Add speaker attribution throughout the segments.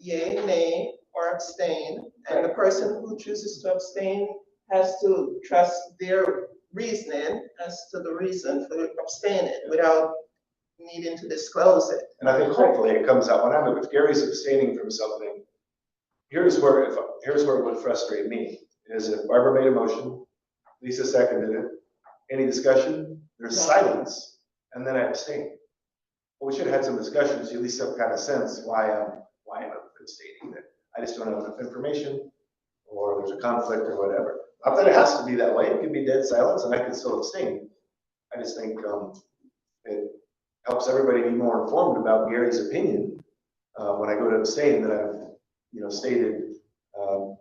Speaker 1: yea, nay, or abstain. And the person who chooses to abstain has to trust their reasoning as to the reason for abstaining without needing to disclose it.
Speaker 2: And I think hopefully it comes out when I'm, if Gary's abstaining from something, here's where, if, here's where it would frustrate me, is if Barbara made a motion, Lisa seconded it, any discussion, there's silence, and then I abstain. Well, we should have had some discussions, you at least have kind of sense why I'm, why I'm abstaining there. I just don't have enough information, or there's a conflict or whatever. Not that it has to be that way, it could be dead silence and I can still abstain. I just think, um, it helps everybody be more informed about Gary's opinion. Uh, when I go to abstain, that I've, you know, stated, um,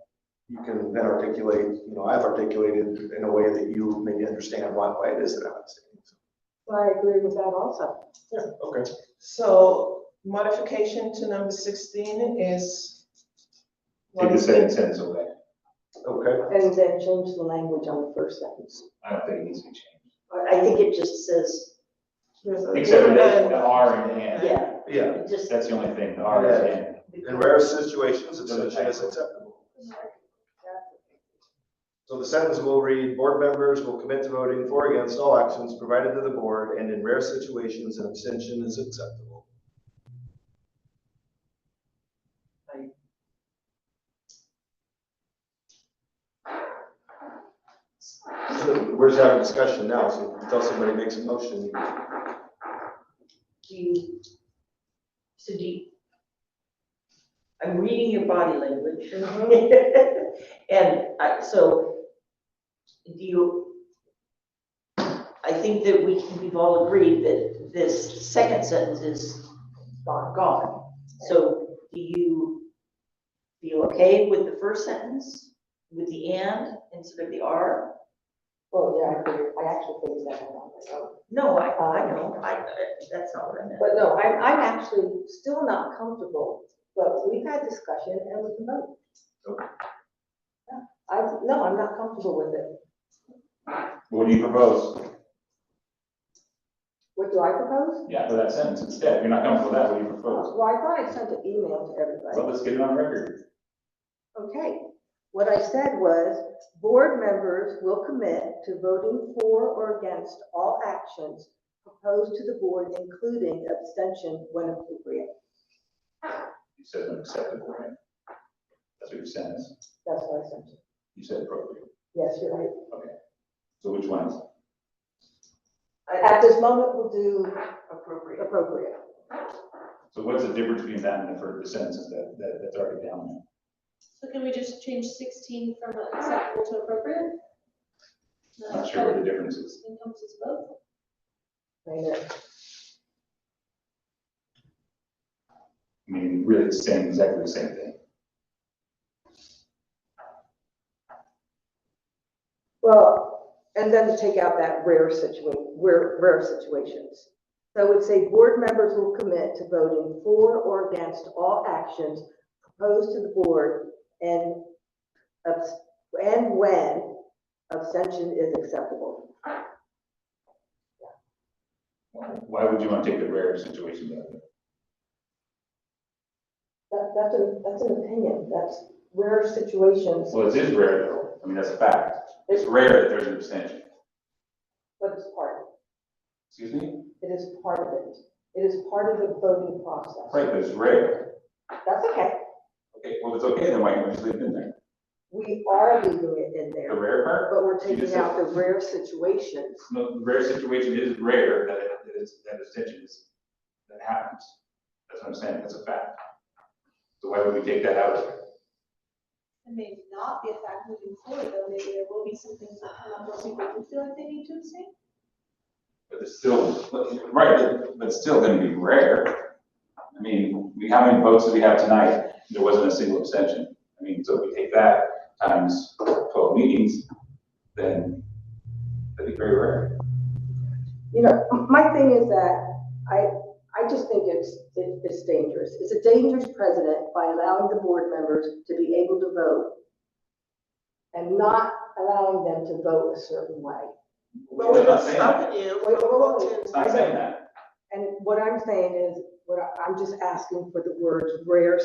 Speaker 2: you can then articulate, you know, I've articulated in a way that you maybe understand why, why it is that I'm abstaining. So,
Speaker 3: Well, I agree with that also.
Speaker 2: Yeah, okay.
Speaker 1: So modification to number sixteen is.
Speaker 4: Take the second sentence away.
Speaker 2: Okay,
Speaker 3: And then change the language on the first sentence.
Speaker 4: I don't think it needs to be changed.
Speaker 3: I I think it just says,
Speaker 1: There's a-
Speaker 4: Except for the, the R and the N.
Speaker 3: yeah,
Speaker 2: yeah,
Speaker 3: it just.
Speaker 4: That's the only thing, the R and the N.
Speaker 2: in rare situations, abstention is acceptable. So the sentence will read, board members will commit to voting for or against all actions provided to the board, and in rare situations, an abstention is acceptable. We're just having discussion now, so until somebody makes a motion,
Speaker 5: Do you, so do you? I'm reading your body language. And I, so, do you? I think that we, we've all agreed that this second sentence is gone, gone. So do you feel okay with the first sentence, with the and instead of the are?
Speaker 3: Well, yeah, I agree. I actually think it's that one. myself.
Speaker 5: No, I, I know, I, I- that's not what I meant.
Speaker 3: But no, I'm, I'm actually still not comfortable, but we've had discussion and we can vote.
Speaker 2: Okay.
Speaker 3: Yeah, I, no, I'm not comfortable with it.
Speaker 4: What do you propose?
Speaker 3: What do I propose?
Speaker 4: Yeah, for that sentence instead. If you're not comfortable with that, what do you propose?
Speaker 3: Well, I thought I sent an email to everybody.
Speaker 4: Well, let's get it on record.
Speaker 3: Okay, what I said was, board members will commit to voting for or against all actions proposed to the board, including abstention when appropriate.
Speaker 4: You said an acceptable, right? That's what your sentence,
Speaker 3: That's what I sent you.
Speaker 4: you said appropriate.
Speaker 3: Yes, you're right.
Speaker 4: So which one is?
Speaker 3: At this moment, we'll do
Speaker 5: Appropriate.
Speaker 3: appropriate.
Speaker 4: So what's the difference between that and the first, the sentence that, that, that's already down there?
Speaker 6: So can we just change sixteen from acceptable to appropriate? Uh,
Speaker 4: Not sure what the difference is.
Speaker 6: Encompasses both.
Speaker 3: Wait a minute.
Speaker 4: I mean, really it's saying exactly the same thing.
Speaker 3: Well, and then to take out that rare situation, rare, rare situations. So it would say, board members will commit to voting for or against all actions proposed to the board and abs- and when abstention is acceptable.
Speaker 4: Why would you want to take the rare situation out of it?
Speaker 3: That, that's an, that's an opinion, that's rare situations,
Speaker 4: Well, it is rare though. I mean, that's a fact. It's rare that there's an abstention.
Speaker 3: but it's part,
Speaker 4: Excuse me?
Speaker 3: it is part of it. It is part of the voting process.
Speaker 4: Right, but it's rare.
Speaker 3: That's okay,
Speaker 4: Okay, well, it's okay, then why can't we just leave it in there?
Speaker 3: we are leaving it in
Speaker 4: The
Speaker 3: there,
Speaker 4: rare part?
Speaker 3: but we're
Speaker 4: You just
Speaker 3: taking
Speaker 4: said-
Speaker 3: out the rare situations.
Speaker 4: No, the rare situation is rare that it, that it's, that abstention is, that happens. That's what I'm saying, that's a fact. So why would we take that out of it?
Speaker 6: It may not be a fact moving forward, though, maybe there will be some things that come up where people do feel like they need to abstain.
Speaker 4: But it's still, but- right, but- but it's still gonna be rare. I mean, we, how many votes did we have tonight? There wasn't a single abstention. I mean, so if we take that times twelve meetings, then that'd be very rare.
Speaker 3: You know, m- my thing is that I, I just think it's, it- it's dangerous. It's a dangerous precedent by allowing the board members to be able to vote and not allowing them to vote a certain way.
Speaker 1: But we're
Speaker 4: It's not
Speaker 1: not
Speaker 4: saying that.
Speaker 1: stopping you.
Speaker 3: Wait, wait, wait, wait.
Speaker 4: It's not saying that.
Speaker 3: And what I'm saying is, what I- I'm just asking for the words rare